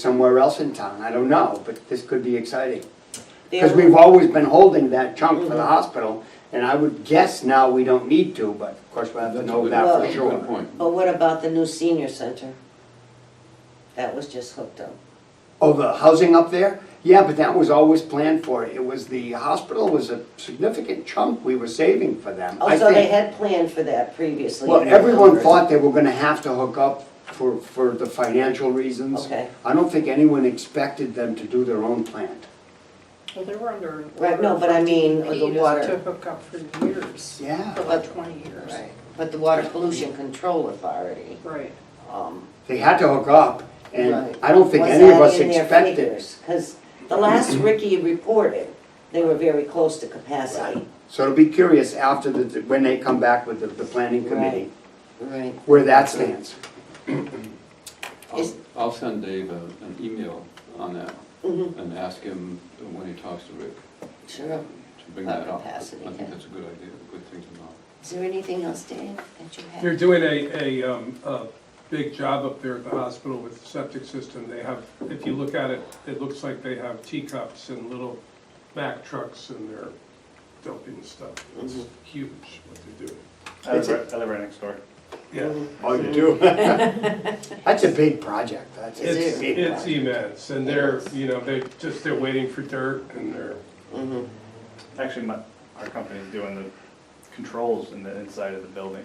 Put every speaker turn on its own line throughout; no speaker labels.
somewhere else in town, I don't know, but this could be exciting. Because
There-
we've always been holding that chunk
Mm-hmm.
for the hospital, and I would guess now we don't need to, but of course we'll have to
That's a
know
good-
that for
that's a
sure.
Good point.
But Oh, what about the new senior center? That was just hooked up.
Oh, the housing up there? Yeah, but that was always planned for. It was, the hospital was a significant chunk we were saving for them. I
Oh, so they
think-
had planned for that previously.
Well,
in their
everyone
numbers.
thought they were gonna have to hook up for, for the financial reasons.
Okay.
I don't think anyone expected them to do their own plant.
Well, they were under. an
Right, no,
order
but I
from E
mean,
DEP
the
just
water.
To hook up for years.
Yeah.
For like twenty years.
Right, but the Water Pollution Control Authority,
Right.
um,
They had to hook up, and
Right.
I don't think
was
any of
that
us
in their
expected.
figures? Cause the last Ricky reported, they were very close to capacity.
So it'll be curious after the, when they come back with the, the planning committee,
Right.
where that stands.
Is-
I'll, I'll send Dave a- an email on that
Mhm.
and ask him when he talks to Rick
Sure.
to bring
About
that up. I
capacity, yeah.
think that's a good idea, a good thing to know.
Is there anything else, Dave, that you have?
They're doing a, a, um, a big job up there at the hospital with the septic system. They have, if you look at it, it looks like they have teacups and little Mack trucks and they're dumping stuff. It's huge what they're doing.
I live, right, I live right next door.
Yeah,
Oh, you do? That's a big project, that's a
it's,
big
it's
project.
immense and they're, you know, they just, they're waiting for dirt and they're,
Mhm.
Actually, my, our company is doing the controls in the inside of the building.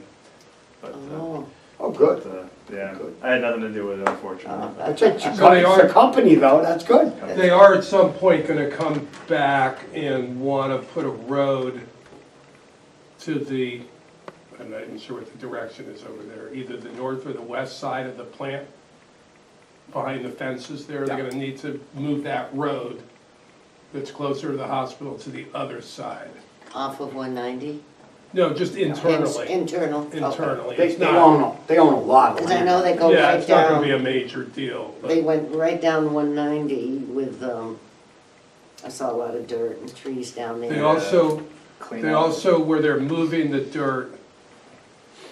But, uh,
Oh,
Oh, good.
but, uh, yeah,
Good.
I had nothing to do with it unfortunately. but-
That's it,
So they
it's a
are-
company though, that's good.
they are at some point gonna come back and wanna put a road to the, I'm not even sure what the direction is over there, either the north or the west side of the plant, behind the fences there, they're gonna need to move that road that's closer to the hospital to the other side.
off of one ninety?
No, just internally,
Internal. okay.
internally,
They,
it's
they
not,
own, a- they own a lot of
Cause I
land.
know they go
yeah,
right
it's not gonna be a
down,
major deal,
they
but
went right down one ninety with, um, I saw a lot of dirt and trees down there.
they also,
Clean
They
up.
also, where they're moving the dirt,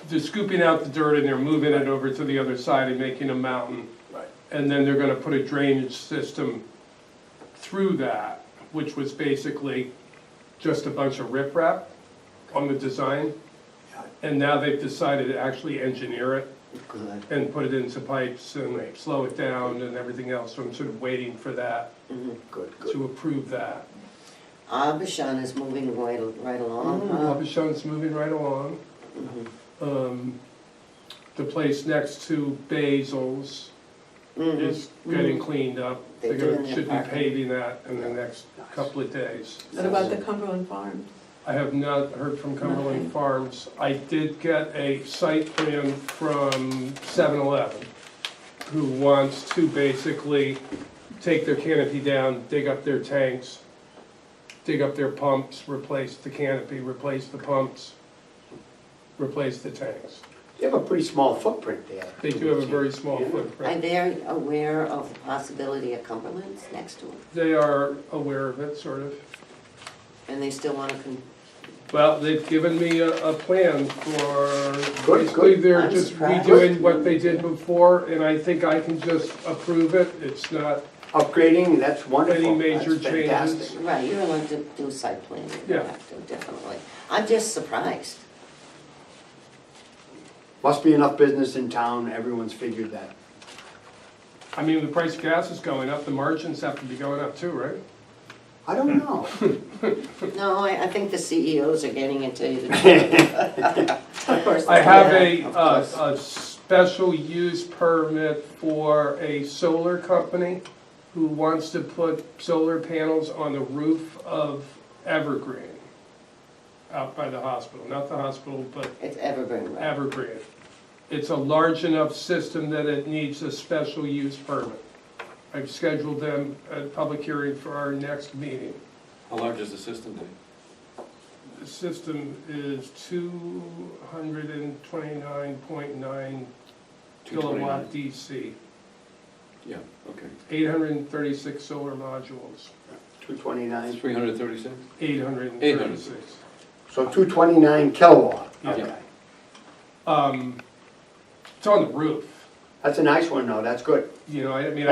they're scooping out the dirt and they're moving it over to the other side and making a mountain.
Right.
And then they're gonna put a drainage system through that, which was basically just a bunch of riprap on the design. And now they've decided to actually engineer it
Good.
and put it into pipes and slow it down and everything else. So I'm sort of waiting for that,
Good, good.
to approve that.
Abishan is moving right, right
Mm,
along, huh?
Abishon's moving right along. Um, The place next to Basil's
Mhm.
is getting cleaned up.
They're
They're gonna,
doing their
should be
parking.
paving that in the next couple of days.
What about the Cumberland Farms?
I have not heard from
Nothing.
Cumberland Farms. I did get a site plan from 7-Eleven, who wants to basically take their canopy down, dig up their tanks, dig up their pumps, replace the canopy, replace the pumps, replace the tanks.
They have a pretty small footprint there.
They do have a very small
Are
footprint.
they aware of the possibility of Cumberland's next to them?
They are aware of it, sort of.
And they still wanna con-
Well, they've given me a, a plan for,
Good,
basically,
good.
they're
I'm
just
surprised.
redoing what they did before, and I think I can just approve it, it's not,
Upgrading, that's wonderful.
Any major
That's fantastic.
changes?
Right, you're allowed to do site planning, you
Yeah.
have to, definitely. I'm just surprised.
Must be enough business in town, everyone's figured that.
I mean, the price of gas is going up, the margins have to be going up too, right?
I don't know.
No, I, I think the CEOs are getting it to you. Of course.
I have a,
yeah, of
uh,
course.
a special use permit for a solar company who wants to put solar panels on the roof of Evergreen, out by the hospital, not the hospital, but
It's Evergreen, right?
Evergreen. It's a large enough system that it needs a special use permit. I've scheduled them a public hearing for our next meeting.
How large is the system, Dave?
The system is two hundred and twenty-nine point nine kilowatt
229?
DC,
Yeah, okay.
eight hundred and thirty-six solar modules,
Two twenty-nine,
Three hundred thirty-six?
eight hundred and
836.
thirty-six.
so two twenty-nine kilowatt.
Yeah.
Okay.
Um, it's on the roof,
That's a nice one, though, that's good.
you know, I mean,